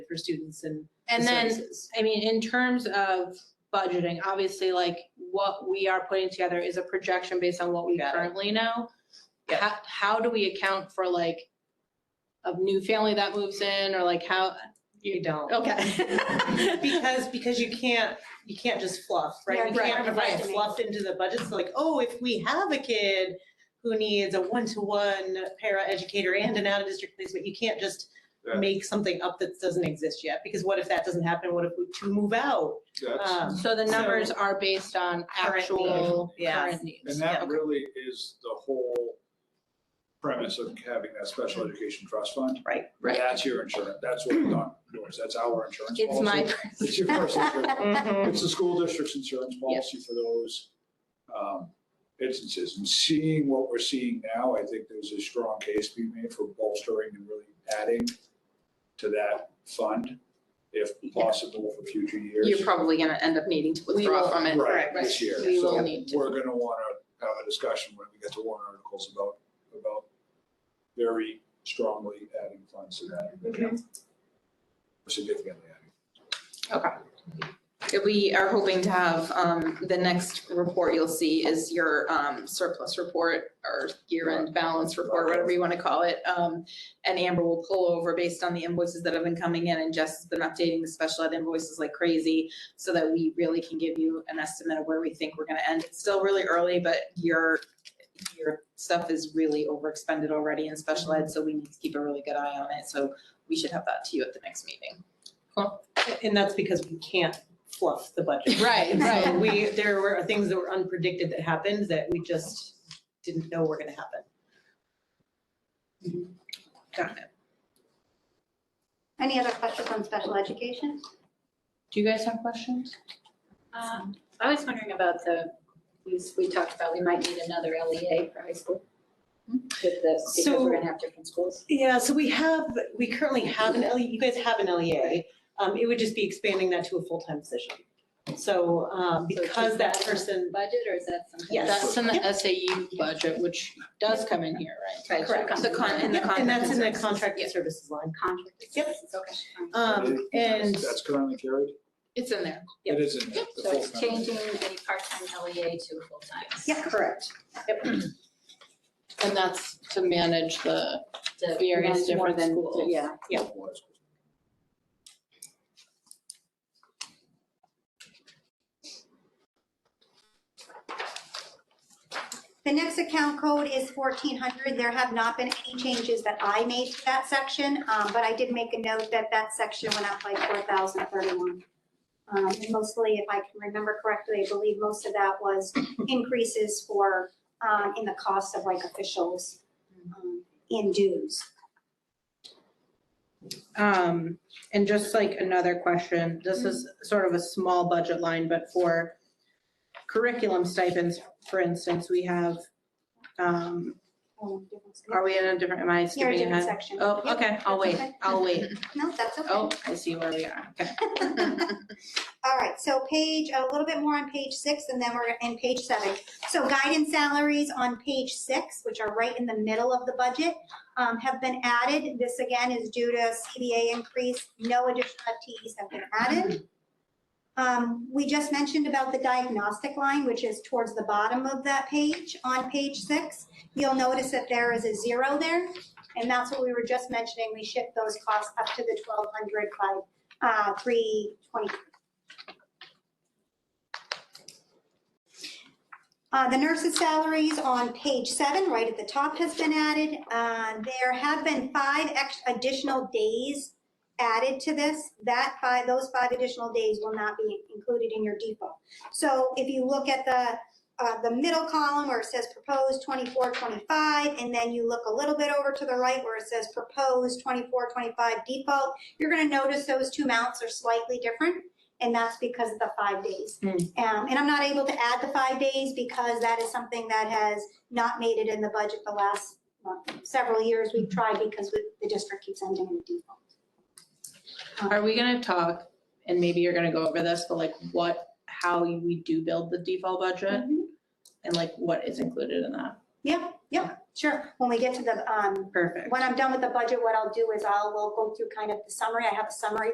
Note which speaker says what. Speaker 1: for students and
Speaker 2: And
Speaker 1: the
Speaker 2: then,
Speaker 1: services.
Speaker 2: I mean, in terms of budgeting, obviously, like, what we are putting together is a projection based on what we
Speaker 1: Got it.
Speaker 2: currently know.
Speaker 1: Yep.
Speaker 2: How, how do we account for like a new family that moves in or like how,
Speaker 1: You don't.
Speaker 2: okay.
Speaker 1: Because, because you can't, you can't just fluff, right? You
Speaker 2: Yeah,
Speaker 1: can't
Speaker 2: right,
Speaker 1: provide
Speaker 2: right.
Speaker 1: fluff into the budget, so like, oh, if we have a kid who needs a one-to-one para educator and an out-of-district placement, you can't just
Speaker 3: Yeah.
Speaker 1: make something up that doesn't exist yet, because what if that doesn't happen? What if we two move out?
Speaker 3: That's,
Speaker 1: Um,
Speaker 2: So the numbers are based on
Speaker 1: Current need,
Speaker 2: actual
Speaker 1: yeah.
Speaker 2: current needs.
Speaker 3: and
Speaker 1: yeah.
Speaker 3: that really is the whole premise of having that special education trust fund.
Speaker 1: Right.
Speaker 2: Right.
Speaker 3: That's your insurance, that's what Don does, that's our insurance policy.
Speaker 2: It's my.
Speaker 3: It's your personal insurance.
Speaker 1: Mhm.
Speaker 2: Mm-hmm.
Speaker 3: It's the school district's insurance policy for those um, instances. And seeing what we're seeing now, I think there's a strong case to be made for bolstering and really adding to that fund if possible for future years.
Speaker 4: You're probably gonna end up needing to
Speaker 2: We
Speaker 4: withdraw
Speaker 2: will-
Speaker 4: from it.
Speaker 3: Right,
Speaker 1: Correct.
Speaker 3: this year.
Speaker 2: We
Speaker 3: So
Speaker 2: will need to.
Speaker 3: We're gonna wanna have a discussion when we get to warrant articles about, about very strongly adding funds to that. Significantly adding.
Speaker 4: We are hoping to have, um, the next report you'll see is your, um, surplus report or year-end balance report, whatever you wanna call it. Um, and Amber will pull over based on the invoices that have been coming in and Jess has been updating the special ed invoices like crazy so that we really can give you an estimate of where we think we're gonna end. It's still really early, but your, your stuff is really overexpended already in special ed, so we need to keep a really good eye on it. So we should have that to you at the next meeting.
Speaker 1: And that's because we can't fluff the budget.
Speaker 2: Right,
Speaker 1: So
Speaker 2: right.
Speaker 1: we, there were things that were unpredicted that happened that we just didn't know were gonna happen.
Speaker 4: Got it.
Speaker 5: Any other questions on special education?
Speaker 2: Do you guys have questions? Uh,
Speaker 6: Um, I was wondering about the, we, we talked about we might need another
Speaker 2: E
Speaker 6: LEA for high school.
Speaker 2: Hmm?
Speaker 6: With the, because
Speaker 1: So-
Speaker 6: we're gonna have different schools.
Speaker 1: Yeah, so we have, we currently have an LE, you guys have an LEA. Um, it would just be expanding that to a full-time position. So, um,
Speaker 6: So
Speaker 1: because
Speaker 6: keep
Speaker 1: that
Speaker 6: that.
Speaker 1: person,
Speaker 6: Budget or is that something?
Speaker 1: Yes.
Speaker 2: That's in the SAU budget, which does come in here, right?
Speaker 6: Right, so it
Speaker 1: correct.
Speaker 6: comes
Speaker 4: The con-
Speaker 6: from
Speaker 4: in the
Speaker 1: Yep, and that's in the
Speaker 4: contracted services,
Speaker 1: contracted
Speaker 4: yeah.
Speaker 1: services line. Yep.
Speaker 6: Contract. services, Okay. fine.
Speaker 1: Um, and,
Speaker 3: That's that's currently carried?
Speaker 2: It's in there.
Speaker 1: Yep.
Speaker 3: It is in there. the
Speaker 6: So it's
Speaker 3: full-time.
Speaker 6: changing a part-time LEA to a full-time.
Speaker 1: yeah, correct.
Speaker 2: And that's to manage the,
Speaker 6: To
Speaker 2: Various
Speaker 6: manage more
Speaker 2: different
Speaker 6: than-
Speaker 2: schools.
Speaker 6: Yeah.
Speaker 1: Yeah.
Speaker 5: The next account code is fourteen hundred. There have not been any changes that I made to that section, um, but I did make a note that that section went up by four thousand thirty-one. Um, and mostly, if I can remember correctly, I believe most of that was increases for, um, in the cost of like officials, um, in dues.
Speaker 2: um, and just like another question, this is sort of a small budget line, but for curriculum stipends, for instance, we have, um,
Speaker 5: Um, different-
Speaker 2: are we in a different, am I
Speaker 5: You're in a
Speaker 2: skipping
Speaker 5: different
Speaker 2: ahead?
Speaker 5: section.
Speaker 2: Oh,
Speaker 5: Yep,
Speaker 2: okay, I'll
Speaker 5: that's
Speaker 2: wait,
Speaker 5: okay.
Speaker 2: I'll wait.
Speaker 5: No, that's okay.
Speaker 2: Oh, I see where we are, okay.
Speaker 5: All right, so page, a little bit more on page six, and then we're in page seven. So guidance salaries on page six, which are right in the middle of the budget, um, have been added. This again is due to CBA increase. No additional FTEs have been added. Um, we just mentioned about the diagnostic line, which is towards the bottom of that page on page six. You'll notice that there is a zero there, and that's what we were just mentioning. We shift those costs up to the twelve hundred by, uh, three twenty, Uh, The nurses' salaries on page seven, right at the top, has been added. Uh, There have been five ex- additional days added to this. That five, those five additional days will not be included in your default. So if you look at the, uh, the middle column where it says proposed 24, 25, and then you look a little bit over to the right where it says proposed 24, 25 default, you're going to notice those two mounts are slightly different, and that's because of the five days. Um, and I'm not able to add the five days because that is something that has not made it in the budget the last well, several years. We've tried because we- the district keeps ending in default.
Speaker 2: Are we gonna talk, and maybe you're gonna go over this, but like what, how we do build the default budget? And like what is included in that?
Speaker 5: Mm-hmm. Yeah, yeah, sure. When we get to the, um,
Speaker 2: Perfect.
Speaker 5: when I'm done with the budget, what I'll do is I'll, we'll go through kind of the summary. I have a summary